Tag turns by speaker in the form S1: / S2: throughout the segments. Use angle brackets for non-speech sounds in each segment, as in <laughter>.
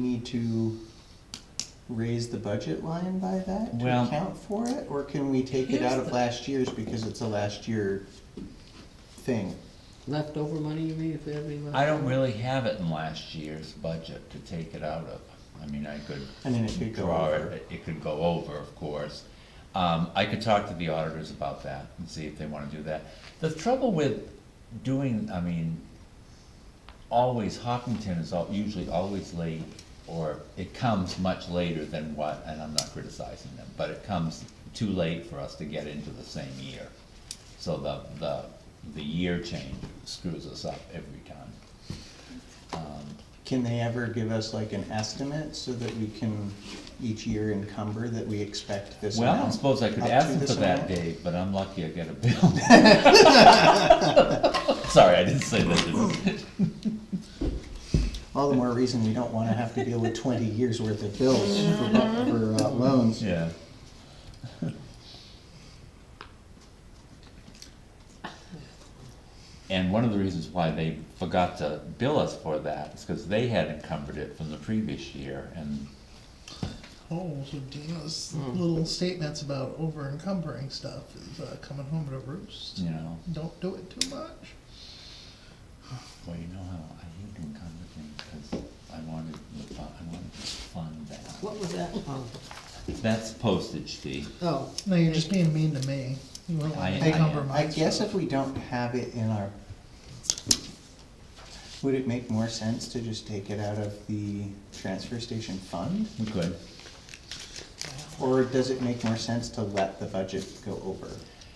S1: need to raise the budget line by that to
S2: Well-
S1: account for it? Or can we take it
S3: Here's
S1: out of
S3: the-
S1: last year's because it's a last year thing?
S3: Leftover money, you mean, if they have any left?
S2: I don't really have it in last year's budget to take it out of. I mean, I could
S1: I mean, it could go
S2: draw
S1: over.
S2: it, it could go over, of course. Um, I could talk to the auditors about that and see if they wanna do that. The trouble with doing, I mean, always, Hopkinton is al- usually always late, or it comes much later than what, and I'm not criticizing them, but it comes too late for us to get into the same year. So the, the, the year change screws us up every time.
S1: Can they ever give us like an estimate so that we can each year encumber that we expect this amount?
S2: Well, I suppose I could
S1: up to
S2: ask them
S1: this
S2: for that,
S1: amount?
S2: Dave, but I'm lucky I get a bill. <laughs> Sorry, I didn't say that, did I?
S1: All the more reason we don't wanna have to deal with twenty years worth of bills for, for uh, loans.
S2: Yeah. And one of the reasons why they forgot to bill us for that is because they had encumbered it from the previous year, and
S4: Oh, so Dana's little statements about over encumbering stuff is uh, coming home to roost.
S2: you know,
S4: Don't do it too much.
S2: well, you know how I hate encumbered things because I wanted the fun, I wanted to fund that.
S3: What was that? Oh,
S2: That's postage fee.
S3: Oh,
S4: No, you're just being mean to me. You won't
S2: I- I
S4: let
S2: am.
S4: me encumber
S1: I
S4: my
S1: guess
S4: stuff.
S1: if we don't have it in our, would it make more sense to just take it out of the transfer station fund?
S2: We could.
S1: Or does it make more sense to let the budget go over?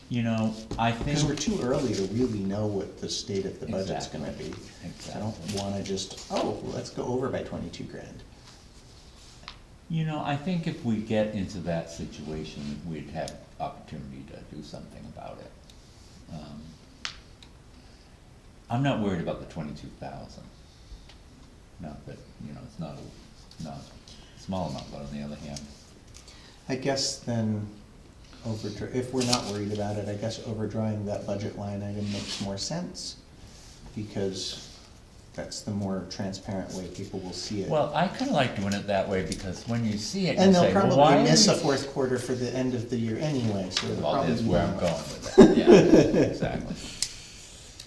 S2: You know, I think.
S1: Because we're too early to really know what the state of the budget's gonna be. I don't
S2: Exactly.
S1: wanna just, oh, let's go over by twenty-two grand.
S2: You know, I think if we get into that situation, we'd have opportunity to do something about it. Um, I'm not worried about the twenty-two thousand. Not that, you know, it's not, a- not a small amount, but on the other hand,
S1: I guess then, overdraw, if we're not worried about it, I guess overdrawing that budget line item makes more sense, because that's the more transparent way people will see it.
S2: well, I kinda like doing it that way, because when you see it, you
S1: And they'll
S2: say, well, why?
S1: probably miss
S2: did
S1: a
S2: we-"
S1: fourth quarter for the end of the year anyway, so. they'll
S2: Well, that's
S1: probably
S2: where I'm
S1: know.
S2: going with it, yeah,
S1: <laughs>
S2: exactly.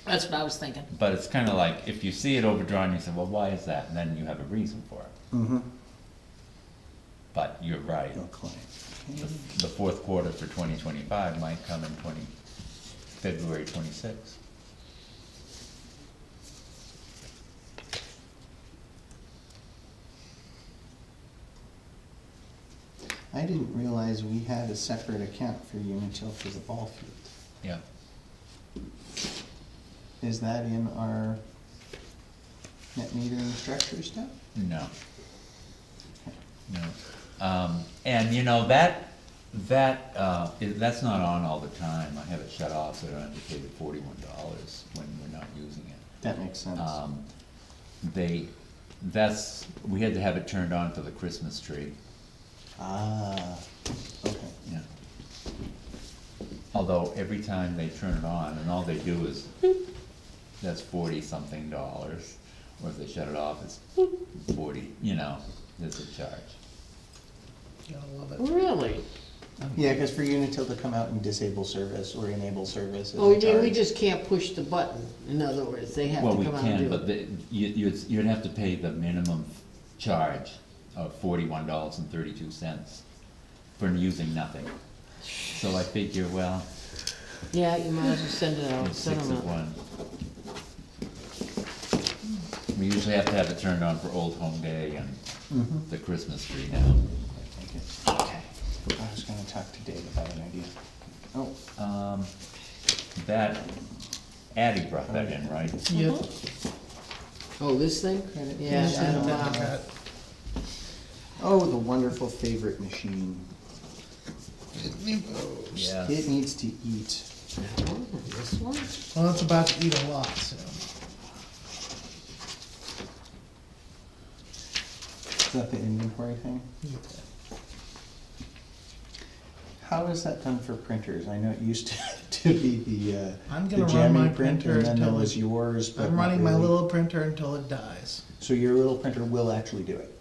S3: that's what I was thinking.
S2: But it's kinda like, if you see it overdrawn, you say, well, why is that? And then you have a reason for it.
S1: Mhm.
S2: But you're right,
S1: No claim.
S2: the- the fourth quarter for twenty twenty-five might come in twenty, February twenty-sixth.
S1: I didn't realize we had a separate account for Unitil for the ball field.
S2: Yeah,
S1: Is that in our net metering structure stuff?
S2: no. No. Um, and you know, that, that, uh, i- that's not on all the time. I have it shut off, so I don't have to pay the forty-one dollars when we're not using it.
S1: That makes sense.
S2: Um, they, that's, we had to have it turned on for the Christmas tree.
S1: Ah, okay.
S2: Yeah. Although every time they turn it on, and all they do is, that's forty-something dollars, or if they shut it off, it's forty, you know, there's a charge.
S4: Gotta love it.
S3: Really?
S1: Yeah, because for Unitil to come out and disable service or enable service is
S3: Oh,
S1: a
S3: you mean we
S1: charge.
S3: just can't push the button, in other words, they have
S2: Well,
S3: to
S2: we
S3: come out and
S2: can,
S3: do
S2: but the,
S3: it.
S2: you, you'd, you'd have to pay the minimum charge of forty-one dollars and thirty-two cents for using nothing. So I figure, well,
S3: Yeah, you might as well send it out,
S2: it's
S3: send
S2: six
S3: them
S2: of
S3: out.
S2: one. We usually have to have it turned on for Old Home Day and
S1: Mhm.
S2: the Christmas tree now.
S1: Okay. I was gonna talk to Dave about an idea. Oh,
S2: Um, that, Addie brought that in, right?
S4: Yep.
S3: Oh, this thing?
S1: Credit
S3: Mm-hmm. Yeah,
S1: card.
S3: I don't
S1: Yeah.
S3: know.
S4: Cut.
S1: oh, the wonderful favorite machine. It
S2: Yes.
S1: needs to eat.
S3: Oh, This one?
S4: Well, it's about to eat a lot soon.
S1: Is that the inventory thing? How is that done for printers? I know it used to, <laughs> to be the, uh,
S4: I'm
S1: the
S4: gonna run my
S1: jamming printer
S4: printer
S1: and then there
S4: until
S1: was
S4: it-
S1: yours, but
S4: I'm
S1: not
S4: running my
S1: really.
S4: little printer until it dies.
S1: So your little printer will actually do it?